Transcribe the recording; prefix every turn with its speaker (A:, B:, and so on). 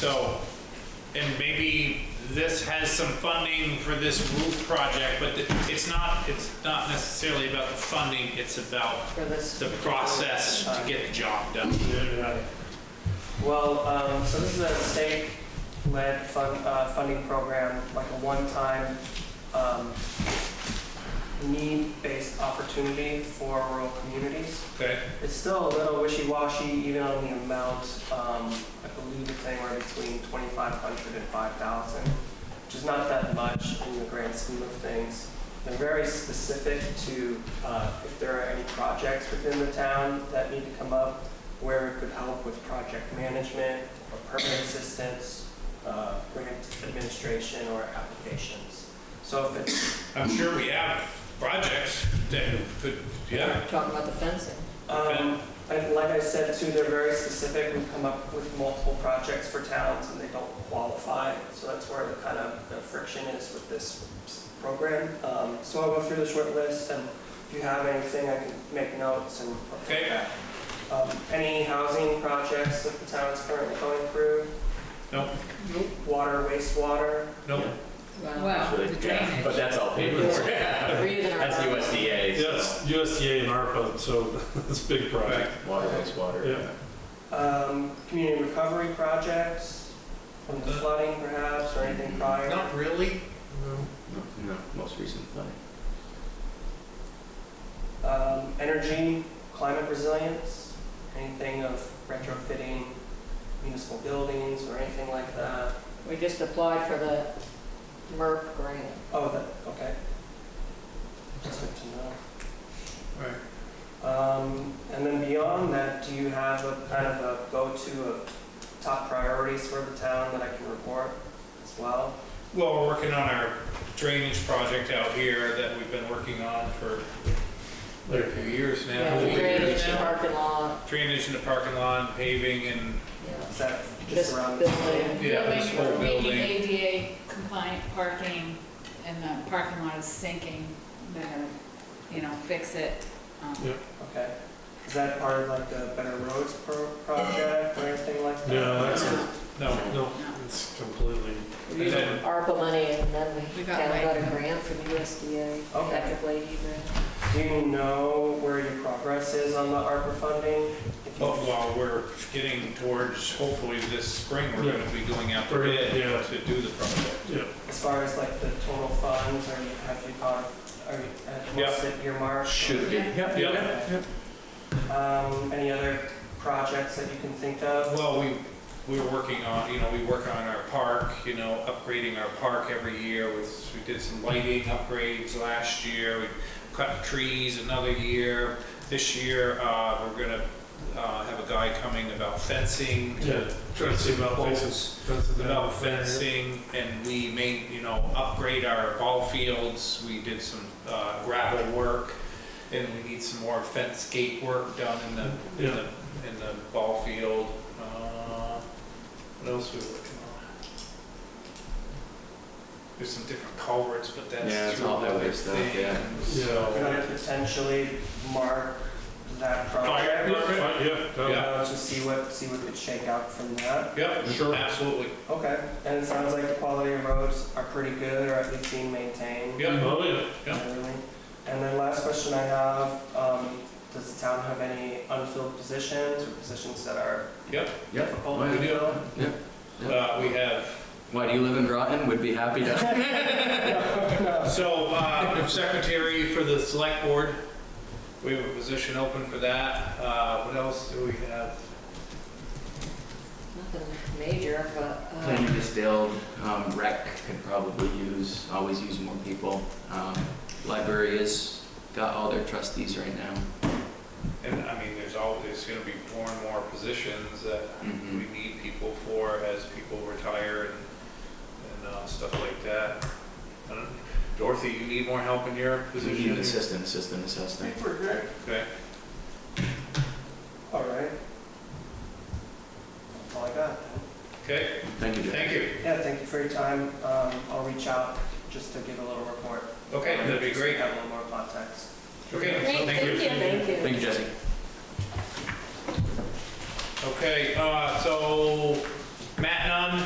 A: So, and maybe this has some funding for this roof project, but th- it's not, it's not necessarily about the funding, it's about
B: for this.
A: the process to get the job done.
B: Right. Well, um, so this is a state-led fun, uh, funding program, like a one-time, um, need-based opportunity for rural communities.
A: Okay?
B: It's still a little wishy-washy even on the amount, um, I believe it's anywhere between 2,500 and 5,000, which is not that much in the grand scheme of things. They're very specific to, uh, if there are any projects within the town that need to come up, where it could help with project management, or permit assistance, uh, grant administration, or applications. So if it's
A: I'm sure we have projects that could, yeah,
C: Talking about the fencing.
B: Um, and like I said too, they're very specific. We've come up with multiple projects for towns and they don't qualify. So that's where the kind of the friction is with this s- program. Um, so I'll go through the short list and if you have anything, I can make notes and.
A: Okay.
B: Um, any housing projects that the town is currently going through?
A: No.
B: Water, wastewater?
A: no,
C: Wow, the drainage.
D: But that's all paid for.
C: We're using our
D: That's
C: own.
D: USDA.
E: Yes,
D: so-
E: USDA and ARPA, so it's a big project.
D: Water, wastewater.
E: Yeah.
B: Um, community recovery projects from the
A: Uh,
B: flooding perhaps or anything prior?
A: not really.
D: No, No, most recent thing.
B: Um, energy, climate resilience, anything of retrofitting municipal buildings or anything like that?
C: We just applied for the MERP grant.
B: Oh, that, okay. That's good to know.
A: Right.
B: Um, and then beyond that, do you have a kind of a go-to of top priorities for the town that I can report as well?
A: Well, we're working on our drainage project out here that we've been working on for a few years now.
C: Yeah, the
A: Few years
C: drainage, the
A: now.
C: parking lot,
A: Drainage in the parking lot, paving and,
B: Is that
C: this
B: just around the
C: building.
A: yeah, this whole
F: Making
A: building.
F: ADA compliant parking, and the parking lot is sinking, they're gonna, you know, fix it. um,
E: Yeah.
B: Okay. Is that part of like the Better Roads pro- project or anything like that?
E: Yeah, that's,
A: No,
E: no,
F: no.
E: it's completely,
C: We're using
A: And then-
C: ARPA money and then we
F: We got
C: kind of got a
F: like-
C: grant from the USDA,
B: Okay.
C: electric lady grant.
B: Do you know where your progress is on the ARPA funding? If you-
A: But while we're getting towards, hopefully this spring, we're gonna be going out to
E: We're gonna-
A: bid
E: yeah.
A: to do the project.
E: yeah.
B: As far as like the total funds, or you- have you got, are you, at
A: Yep.
B: what's it earmarked?
D: Should be.
F: Yeah.
E: Yep,
B: yep,
E: yep.
B: Um, any other projects that you can think of?
A: Uh, Well, we, we were working on, you know, we work on our park, you know, upgrading our park every year with, we did some lighting upgrades last year, we cut trees another year. This year, uh, we're gonna, uh, have a guy coming about fencing.
E: Yeah, trying to see about places. fences down.
A: About fencing, and we made, you know, upgrade our ball fields, we did some uh, gravel work, and we need some more fence gate work done in the, in the, in the ball field. Uh, What else we working on? There's some different culverts, but that's.
D: Yeah, it's
A: through
D: all highway
A: other
D: stuff, yeah.
A: things.
E: Yeah.
B: Could I potentially mark that
A: Fire
B: project?
A: department?
E: Fine, Yeah, no,
A: Yeah.
B: Uh, just see what, see what could shake out from that.
A: Yep, sure, absolutely.
B: Okay, and it sounds like the quality of roads are pretty good, or at least being maintained.
A: Yep.
E: oh, yeah.
A: Yeah.
B: Really. And then last question I have, um, does the town have any unfilled positions or positions that are
D: Yep.
B: difficult
D: Why
B: to
A: do.
B: fill?
A: Uh, we have
D: Why do you live in Groton? Would be happy to.
A: So, uh, secretary for the select board, we have a position open for that. Uh, what else do we have?
C: Nothing major, but, uh,
D: Planning just build, um, rec could probably use, always use more people. Um, library has got all their trustees right now.
A: And, I mean, there's always gonna be more and more positions that we
D: Mhm.
A: need people for as people retire and, and, uh, stuff like that. I don't- Dorothy, you need more help in your
D: We need
A: position?
D: assistant, assistant, assistant.
B: We're good.
A: Okay,
B: All right. That's all I got.
A: okay,
D: Thank you, Jeff.
A: thank you.
B: Yeah, thank you for your time. Um, I'll reach out just to give a little report.
A: Okay, that'd be
B: Just
A: great.
B: Have a little more context.
A: Okay, so thank you.
C: thank you.
D: Thank you, Jesse.
A: Okay, uh, so Matt Nunn?